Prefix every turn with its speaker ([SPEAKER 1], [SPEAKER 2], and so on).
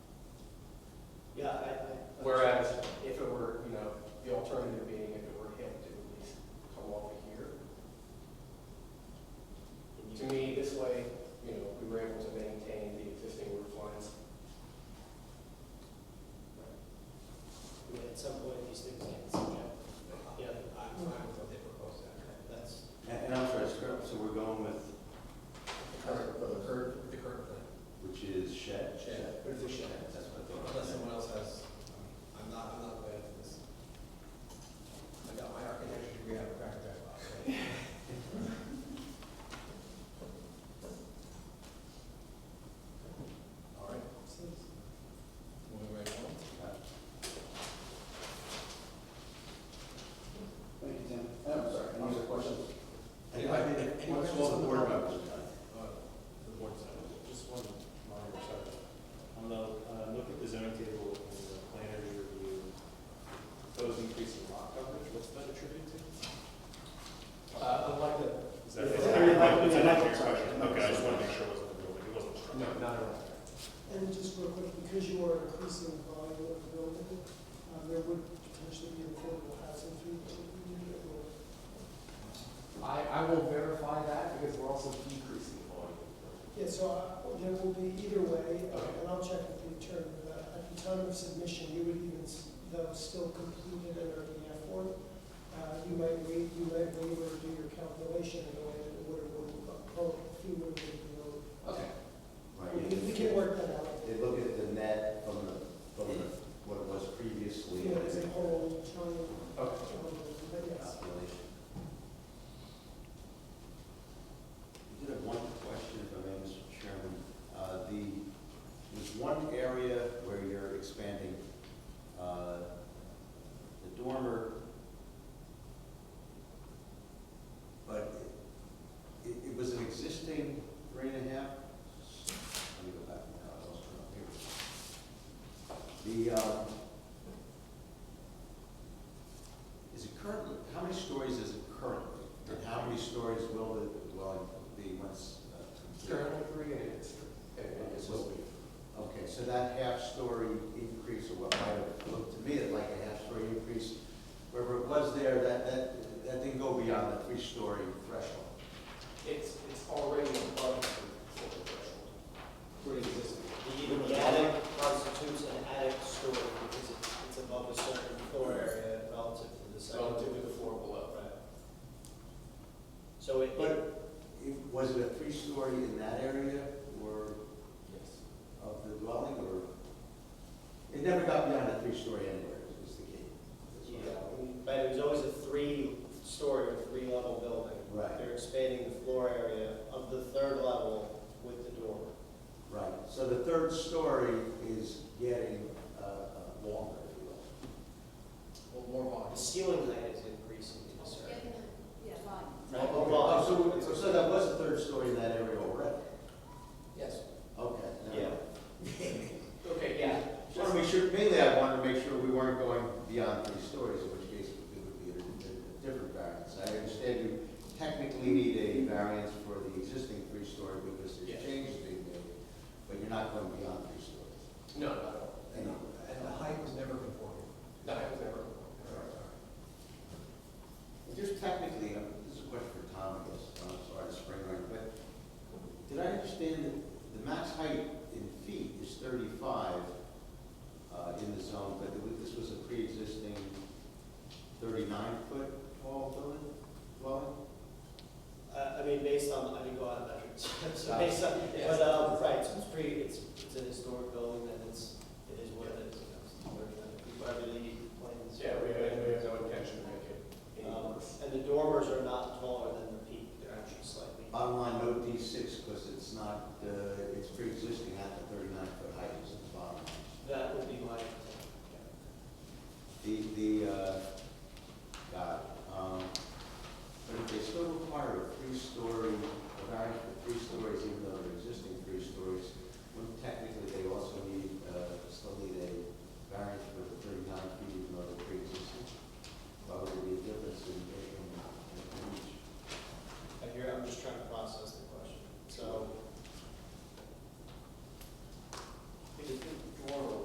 [SPEAKER 1] what's that attributed to? Uh, I'd like to,
[SPEAKER 2] Is that- is
[SPEAKER 1] Yeah.
[SPEAKER 2] that- is that not your question? Okay, I just want to make sure it wasn't the building, it wasn't the
[SPEAKER 1] no,
[SPEAKER 2] structure.
[SPEAKER 1] not at all.
[SPEAKER 3] And just real quick, because you are increasing the volume of the building, uh, there would potentially be affordable housing through the community that will
[SPEAKER 1] I, I will verify that because we're also decreasing the volume.
[SPEAKER 3] Yeah, so I- there will be either way, uh,
[SPEAKER 1] Okay.
[SPEAKER 3] and I'll check with the attorney, but at the time of submission, you would even, s- though still completed an RDF form, uh, you might wait, you might wait or do your calculation in a way that it would have been, oh, if you would have been,
[SPEAKER 1] Okay,
[SPEAKER 3] you know, we can work that out.
[SPEAKER 4] They look at the net from the, from the, what it was previously.
[SPEAKER 3] You know, it's a whole triangle,
[SPEAKER 1] okay.
[SPEAKER 3] triangle, but yes.
[SPEAKER 4] Population. I did have one question, if I may, Mr. Chairman. Uh, The, there's one area where you're expanding, uh, the dormer, but it, it was an existing three and a half, let me go back, I lost it up here. The, um, is it currently, how many stories is it currently? And how many stories will the dwelling be once uh, completed?
[SPEAKER 1] Currently three and it's, and it will be.
[SPEAKER 4] Okay, so that half-story increase, or what might have looked to me like a half-story increase, wherever it was there, that, that, that didn't go beyond the three-story threshold.
[SPEAKER 1] It's, it's already above the corporate threshold. Pre-existing.
[SPEAKER 5] The the attic constitutes an attic story because it's, it's above a certain floor area relative to the second.
[SPEAKER 1] Relative to the floor below.
[SPEAKER 5] Right. So it, it-
[SPEAKER 4] But it, was it a three-story in that area, or
[SPEAKER 1] Yes.
[SPEAKER 4] of the dwelling, or? It never got beyond a three-story anywhere, is the key. That's what I-
[SPEAKER 5] yeah, but it was always a three-story or three-level building.
[SPEAKER 4] Right.
[SPEAKER 5] They're expanding the floor area of the third level with the dormer.
[SPEAKER 4] Right, so the third story is getting uh, uh, longer, if you will.
[SPEAKER 1] Well, more
[SPEAKER 5] The
[SPEAKER 1] volume.
[SPEAKER 5] ceiling height is increasing to a certain.
[SPEAKER 6] Yeah, fine.
[SPEAKER 5] Right.
[SPEAKER 4] Oh, oh, so- so, that was a third story in that area already?
[SPEAKER 1] Yes.
[SPEAKER 4] Okay. never
[SPEAKER 5] Yeah.
[SPEAKER 4] mind.
[SPEAKER 1] Okay, yeah.
[SPEAKER 4] Just wanted to make sure, mainly I wanted to make sure we weren't going beyond three stories, in which case it would be a a different variance. I understand you technically need a variance for the existing three-story because
[SPEAKER 1] Yes.
[SPEAKER 4] there's changes being made, but you're not going beyond three stories.
[SPEAKER 1] No,
[SPEAKER 5] Uh, um, Um,
[SPEAKER 1] no,
[SPEAKER 4] uh, uh, uh, uh, um, uh,